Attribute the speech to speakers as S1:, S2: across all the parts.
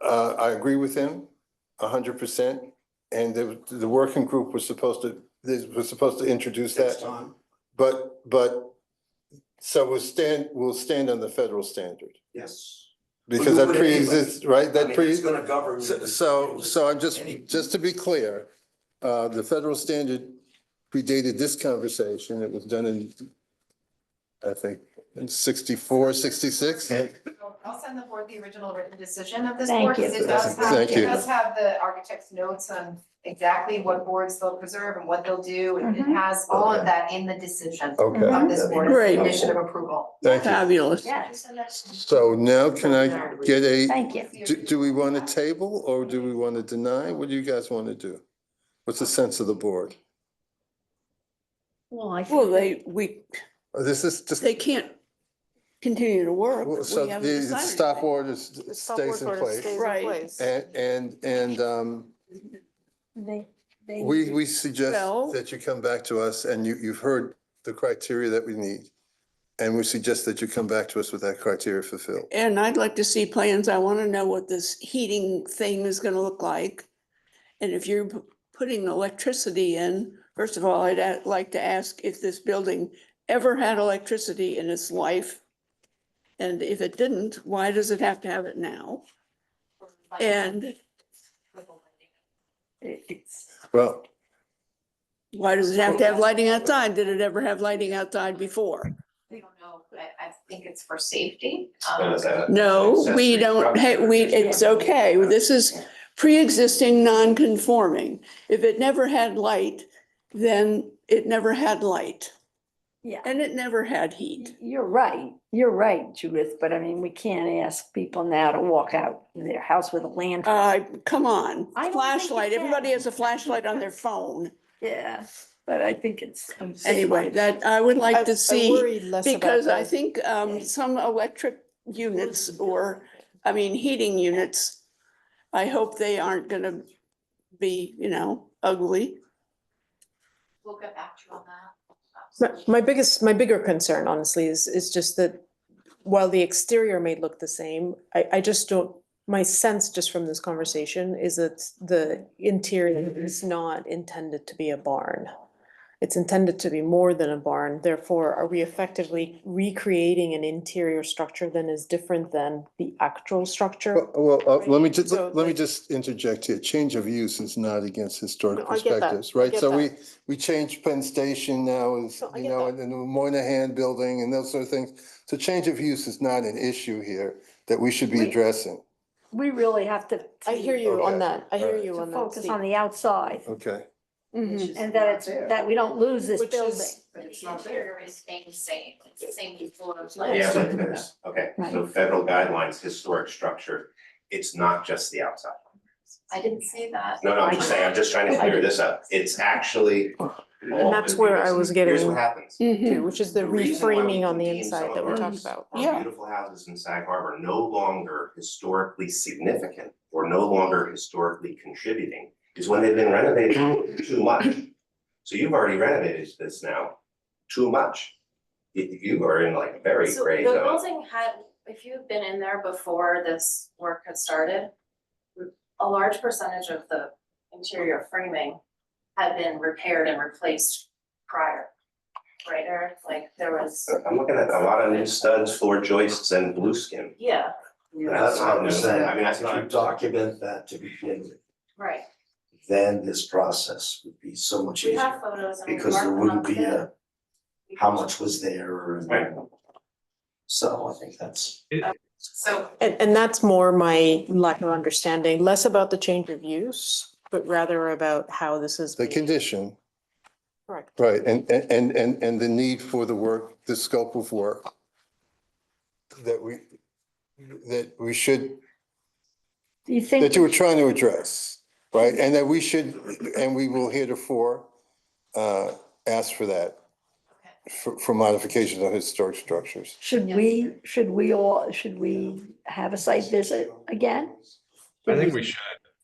S1: Uh, I agree with him a hundred percent. And the, the working group was supposed to, this was supposed to introduce
S2: Next
S1: that,
S2: time,
S1: but, but so we'll stand, we'll stand on the federal standard.
S2: yes.
S1: Because
S2: Well,
S1: that
S2: you would anyway.
S1: pre-exists, right,
S2: I
S1: that
S2: mean,
S1: pre.
S2: It's gonna govern.
S1: So- So, so I'm just,
S2: Any-
S1: just to be clear, uh, the federal standard predated this conversation. It was done in, I think, in 64, 66.
S3: I'll send the board the original written decision of this
S4: Thank
S3: board, because
S4: you.
S3: it does have,
S1: Thank
S3: it
S1: you.
S3: does have the architect's notes on exactly what boards they'll preserve and what they'll do, and it
S4: Mhm.
S3: has all
S1: Okay.
S3: of that in the decision
S1: Okay,
S3: of this board,
S5: Great.
S3: condition of approval.
S1: thank you.
S5: Fabulous.
S4: Yes,
S1: So now can I get a,
S4: thank you.
S1: do, do we want to table or do we want to deny? What do you guys want to do? What's the sense of the board?
S4: Well, I
S5: Well,
S4: think
S5: they, we,
S1: Uh, This is just,
S5: they can't continue to work.
S1: so
S5: We haven't
S1: the
S5: decided
S1: stop
S5: anything.
S1: order s- stays in place.
S5: Right.
S1: And, and, and, um,
S4: they, they.
S1: We, we suggest
S5: Well-
S1: that you come back to us and you, you've heard the criteria that we need. And we suggest that you come back to us with that criteria fulfilled.
S5: And I'd like to see plans. I want to know what this heating thing is going to look like. And if you're p- putting electricity in, first of all, I'd a- like to ask if this building ever had electricity in its life. And if it didn't, why does it have to have it now? And
S1: Well,
S5: why does it have to have lighting outside? Did it ever have lighting outside before?
S3: We don't know, but I think it's for safety.
S2: Uh,
S3: Um,
S2: that-
S5: No,
S2: Accessory
S5: we don't,
S2: structure.
S5: ha- we, it's okay. This is pre-existing non-conforming. If it never had light, then it never had light
S4: Yeah,
S5: and it never had heat.
S4: you're right, you're right, Judith, but I mean, we can't ask people now to walk out in their house with a land.
S5: Uh, come on,
S4: I don't think
S5: flashlight.
S4: you can.
S5: Everybody has a flashlight on their phone.
S4: Yeah, but I think it's.
S5: Anyway, that, I would like to see, because I think, um,
S4: Yeah.
S5: some electric units or, I mean, heating units, I hope they aren't gonna be, you know, ugly.
S3: We'll get back to you on that.
S6: My- My biggest, my bigger concern honestly is, is just that while the exterior may look the same, I, I just don't, my sense just from this conversation is that the interior
S4: Mm-hmm.
S6: is not intended to be a barn. It's intended to be more than a barn, therefore are we effectively recreating an interior structure that is different than the actual structure?
S1: well, well, uh, let me just,
S6: So,
S1: let me
S6: like-
S1: just interject here. Change of use is not against historic
S6: No, I get that.
S1: perspectives,
S6: I
S1: right?
S6: get
S1: So
S6: that.
S1: we, we changed Penn Station now is,
S6: No, I
S1: you
S6: get
S1: know,
S6: that.
S1: and the Moynihan Building and those sort of things. So change of use is not an issue here that we should be
S4: Wait.
S1: addressing.
S4: We really have to.
S6: I hear you
S1: Okay,
S6: on that, I hear
S1: alright.
S4: To
S6: you on that,
S4: focus
S6: Steve.
S4: on the outside
S1: Okay.
S4: and that it's, that we don't lose this
S6: Which
S4: building.
S6: is,
S3: But it's not there. It's staying the same, it's the same floor of
S2: Yeah,
S3: lights.
S2: but there's, okay, so federal guidelines, historic structure, it's not just the outside.
S3: I didn't say that.
S2: No, no, I'm just saying, I'm just trying to clear this up. It's actually. all
S6: that's where I was
S2: Here's
S6: getting-
S2: what happens.
S4: Mm-hmm.
S5: Mhm.
S6: too, which is the
S2: The reason why we
S6: reframing on the
S2: contain
S6: inside
S2: some
S6: that we
S2: of
S6: talked
S2: ours.
S6: about.
S2: are
S5: Yeah.
S2: beautiful houses in Sag Harbor no longer historically significant or no longer historically contributing is when they've been renovated too much. So you've already renovated this now too much. You- You are in like a very
S7: So
S2: gray
S7: the
S2: zone.
S7: building had, if you've been in there before this work had started, a large percentage of the interior framing had been repaired and replaced prior. Right, Eric? like there was,
S8: Uh,
S2: I'm looking at a lot of new studs, floor joists and blue skin.
S7: yeah,
S2: That's not new. I mean, that's
S8: If you
S2: not.
S8: document that to begin with,
S7: right.
S8: then this process would be so much
S7: We have
S8: easier.
S7: photos and we
S8: Because there
S7: marked them up
S8: wouldn't be
S7: today.
S8: a, how much was there
S2: Right.
S8: and. So I think that's.
S3: So
S6: And, and that's more my lack of understanding, less about the change of use, but rather about how this is.
S1: The
S6: being-
S1: condition.
S6: Correct.
S1: Right, and, and- and, and, and the need for the work, the scope of work that we, that we should,
S4: Do you
S1: that
S4: think,
S1: you were trying to address, right? And that we should, and we will heretofore uh, ask for that, for, for modifications of historic structures.
S4: should we, should we all, should we have a site visit again?
S9: I think we should,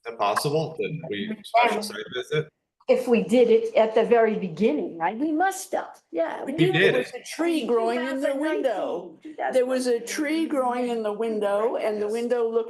S9: if possible, that we special site visit.
S4: If we did it at the very beginning, right? We must have, yeah.
S9: We did
S5: There was a tree growing in the window. There was a tree growing in the window and the window looked